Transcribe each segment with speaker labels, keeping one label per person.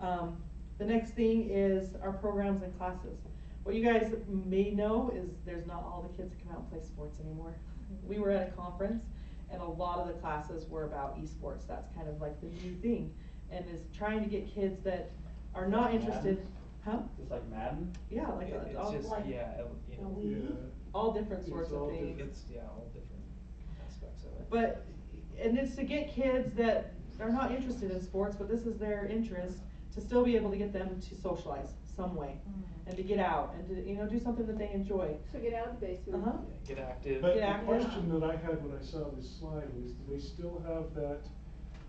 Speaker 1: Um, the next thing is our programs and classes. What you guys may know is there's not all the kids that come out and play sports anymore. We were at a conference and a lot of the classes were about esports. That's kind of like the new thing. And is trying to get kids that are not
Speaker 2: Like
Speaker 1: interested, huh?
Speaker 2: Just like Madden?
Speaker 1: Yeah, like
Speaker 3: It-
Speaker 1: uh,
Speaker 3: It's
Speaker 1: all,
Speaker 3: just,
Speaker 4: like-
Speaker 3: yeah, it- you know,
Speaker 4: Yeah.
Speaker 1: all different
Speaker 5: It's
Speaker 1: sorts of
Speaker 5: all
Speaker 1: things.
Speaker 5: different.
Speaker 3: it's, yeah, all different aspects of it.
Speaker 1: But, and it's to get kids that are not interested in sports, but this is their interest, to still be able to get them to socialize some way. And to get out and to, you know, do something that they enjoy.
Speaker 4: So get out of the basement.
Speaker 1: Uh-huh.
Speaker 3: Yeah, Get active.
Speaker 5: But
Speaker 1: Yeah.
Speaker 5: the question that I had when I saw this slide was, do they still have that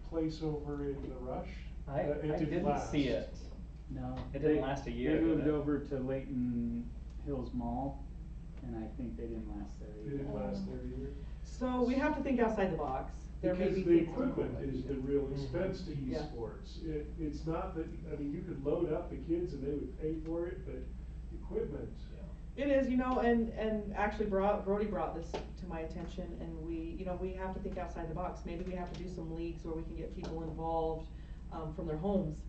Speaker 5: place over in the rush?
Speaker 2: I,
Speaker 5: Uh, it
Speaker 2: I didn't
Speaker 5: last.
Speaker 2: see it.
Speaker 6: No.
Speaker 2: It didn't
Speaker 6: they-
Speaker 2: last a year,
Speaker 6: They moved
Speaker 2: did it?
Speaker 6: over to Leighton Hills Mall, and I think they didn't last there
Speaker 5: It
Speaker 6: either.
Speaker 5: didn't last there either.
Speaker 1: So we have to think outside the box. There may be
Speaker 5: Because the
Speaker 1: things that-
Speaker 5: equipment is the real
Speaker 2: Mm-hmm.
Speaker 3: Mhm.
Speaker 5: expense to
Speaker 1: Yeah.
Speaker 5: esports. It, it's not that, I mean, you could load up the kids and they would pay for it, but equipment.
Speaker 3: Yeah.
Speaker 1: It is, you know, and, and actually brought, Brody brought this to my attention and we, you know, we have to think outside the box. Maybe we have to do some leagues where we can get people involved, um, from their homes.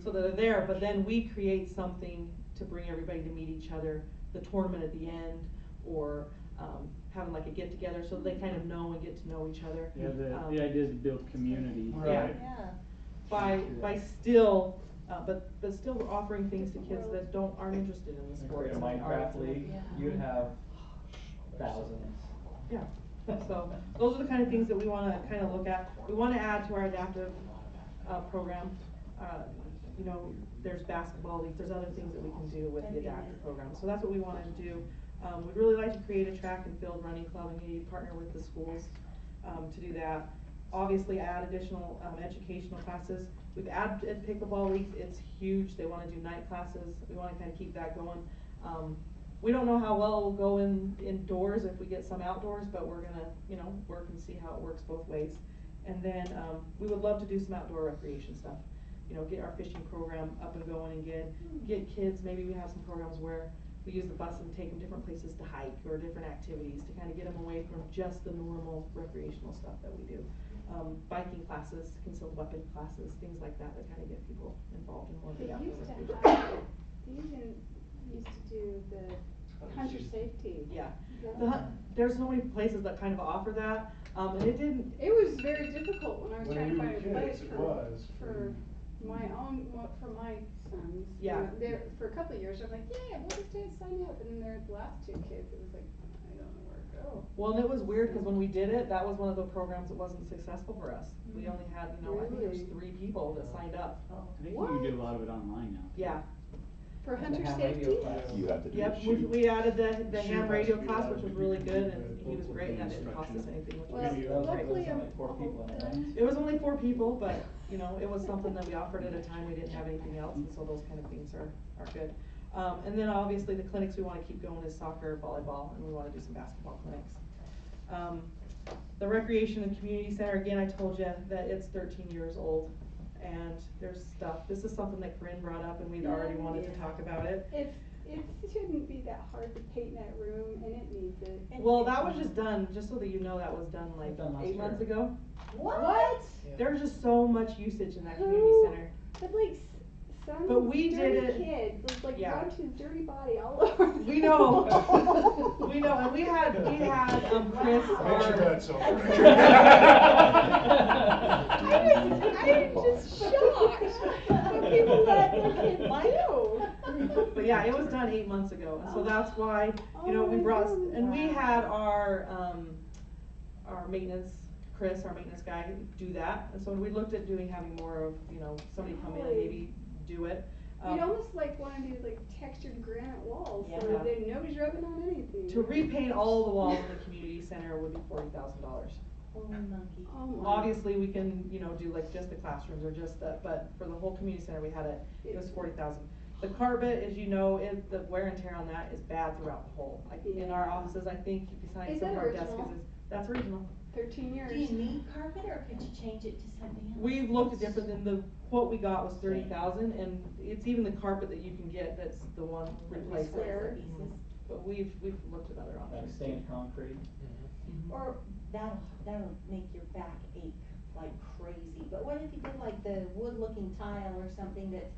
Speaker 1: So that are there, but then we create something to bring everybody to meet each other, the tournament at the end, or, um, having like a get together, so they kind of know and get to know each other.
Speaker 6: Yeah, the,
Speaker 1: um,
Speaker 6: the idea is to build community.
Speaker 5: Right.
Speaker 1: By, by still, uh, but, but still offering things to kids that don't, aren't interested in the
Speaker 2: Like
Speaker 1: sports.
Speaker 2: a
Speaker 1: and the arts
Speaker 2: Minecraft
Speaker 1: and
Speaker 2: league,
Speaker 4: Yeah.
Speaker 2: you'd have
Speaker 3: Oh,
Speaker 2: thousands.
Speaker 1: Yeah, so those are the kind of things that we wanna kind of look at. We wanna add to our adaptive, uh, program. Uh, you know, there's basketball leagues, there's other things that we can do with the adaptive program. So that's what we wanna do. Um, we'd really like to create a track and field running club and maybe partner with the schools, um, to do that. Obviously add additional, um, educational classes. We've added pickleball leagues, it's huge. They wanna do night classes. We wanna kind of keep that going. Um, we don't know how well it'll go in, indoors if we get some outdoors, but we're gonna, you know, work and see how it works both ways. And then, um, we would love to do some outdoor recreation stuff, you know, get our fishing program up and going and get, get kids, maybe we have some programs where we use the bus and take them different places to hike or different activities to kind of get them away from just the normal recreational stuff that we do. Um, biking classes, concealed weapon classes, things like that, that kind of get people involved in more of
Speaker 4: They
Speaker 1: the outdoor
Speaker 4: used
Speaker 1: recreation.
Speaker 4: to have, they even used to do
Speaker 2: Oh,
Speaker 4: the hunter safety.
Speaker 1: Yeah, The hun- there's so many places that kind of offer that, um, and it didn't,
Speaker 4: It was very difficult when I was
Speaker 5: When
Speaker 4: trying to
Speaker 5: we
Speaker 4: find
Speaker 5: were
Speaker 4: a place
Speaker 5: kids, it
Speaker 4: for,
Speaker 5: was,
Speaker 4: for my own, well, for my sons. you
Speaker 1: Yeah.
Speaker 4: know, There, for a couple of years, I'm like, yeah, we'll just do- sign up, and then their last two kids, it was like, I don't know where to go.
Speaker 1: well, and it was weird, cause when we did it, that was one of the programs that wasn't successful for us. We
Speaker 4: Mm.
Speaker 1: only had, you know, I think there's
Speaker 4: Really? Oh.
Speaker 1: three people that signed up,
Speaker 6: I think you can do a lot of it online now.
Speaker 1: yeah.
Speaker 4: For
Speaker 2: They
Speaker 4: hunter
Speaker 2: have radio
Speaker 4: safety?
Speaker 2: class.
Speaker 7: You have to do
Speaker 1: Yep,
Speaker 7: a
Speaker 1: we,
Speaker 7: shoot.
Speaker 1: we added the, the
Speaker 5: Shoot
Speaker 1: ham
Speaker 5: has
Speaker 1: radio
Speaker 5: to be
Speaker 1: class,
Speaker 5: added
Speaker 1: which was
Speaker 5: if you
Speaker 1: really
Speaker 5: do
Speaker 1: good,
Speaker 5: the
Speaker 1: and he was
Speaker 5: local
Speaker 1: great, and that didn't cost us
Speaker 6: instruction.
Speaker 1: anything, which was
Speaker 4: Well,
Speaker 5: Video.
Speaker 4: luckily
Speaker 2: There's
Speaker 4: I'm
Speaker 2: only four people
Speaker 4: all
Speaker 2: in it,
Speaker 4: done.
Speaker 1: It was only four people, but, you know, it was something that we offered at a time we didn't have anything else, and so those kind of things are, are good. Um, and then obviously the clinics we wanna keep going is soccer, volleyball, and we wanna do some basketball clinics. Um, the recreation and community center, again, I told you that it's thirteen years old, and there's stuff, this is something that Corinne brought up, and we'd already wanted to talk about it.
Speaker 4: It's, it shouldn't be that hard to paint that room and it needs it.
Speaker 1: Well, that was just done, just so that you know, that was done like
Speaker 2: Done last
Speaker 1: eight months
Speaker 2: year.
Speaker 1: ago.
Speaker 4: What?
Speaker 3: Yeah.
Speaker 1: There's just so much usage in that community
Speaker 4: Who-
Speaker 1: center.
Speaker 4: But like s- some
Speaker 1: But we did
Speaker 4: dirty
Speaker 1: it-
Speaker 4: kid was like
Speaker 1: yeah.
Speaker 4: rubbed his dirty body all over. the
Speaker 1: We know.
Speaker 4: wall.
Speaker 1: We know, and we had, we had, um, Chris,
Speaker 5: Picture
Speaker 1: our,
Speaker 5: that, so.
Speaker 4: I was, I was just shocked when people let their kid do.
Speaker 1: but yeah, it was done eight months ago, and so that's why, you know,
Speaker 4: Oh
Speaker 1: we
Speaker 4: my
Speaker 1: brought,
Speaker 4: goodness.
Speaker 1: and we had our, um, our maintenance, Chris, our maintenance guy, do that, and so we looked at doing, having more of, you know, somebody come in and maybe do it.
Speaker 4: You'd
Speaker 1: Um,
Speaker 4: almost like wanna do like textured granite walls, so
Speaker 1: Yeah.
Speaker 4: that they- nobody's rubbing on anything.
Speaker 1: To repaint all the walls in the community center would be forty thousand dollars.
Speaker 4: Oh my.
Speaker 1: Obviously, we can, you know, do like just the classrooms or just the, but for the whole community center, we had it, it was forty thousand. The carpet, as you know, is, the wear and tear on that is bad throughout the whole, like in our
Speaker 4: Yeah.
Speaker 1: offices, I think, besides
Speaker 4: Is
Speaker 1: some of
Speaker 4: that
Speaker 1: our desks,
Speaker 4: original?
Speaker 1: is, that's original.
Speaker 4: Thirteen years.
Speaker 8: Do you need carpet or could you change it to something else?
Speaker 1: We've looked at different, than the quote we got was thirty thousand, and it's even the carpet that you can get, that's the one replaced.
Speaker 4: Square.
Speaker 1: But we've, we've looked at other
Speaker 2: Like
Speaker 1: options.
Speaker 2: stained concrete.
Speaker 8: Or that'll, that'll make your back ache like crazy, but what if you did like the wood looking tile or something that's